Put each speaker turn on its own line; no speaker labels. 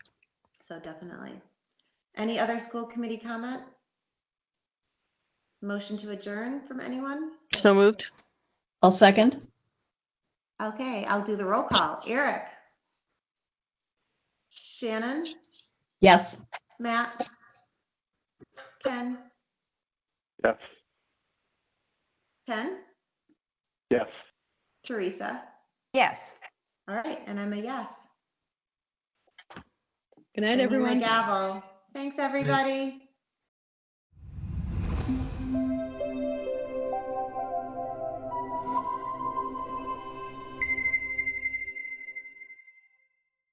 so definitely. Any other school committee comment? Motion to adjourn from anyone?
So moved.
I'll second.
Okay, I'll do the roll call. Eric? Shannon?
Yes.
Matt? Ken?
Yes.
Ken?
Yes.
Teresa?
Yes.
All right, and I'm a yes.
Good
And
night,
hear my
everyone.
Gavel. Thanks, everybody.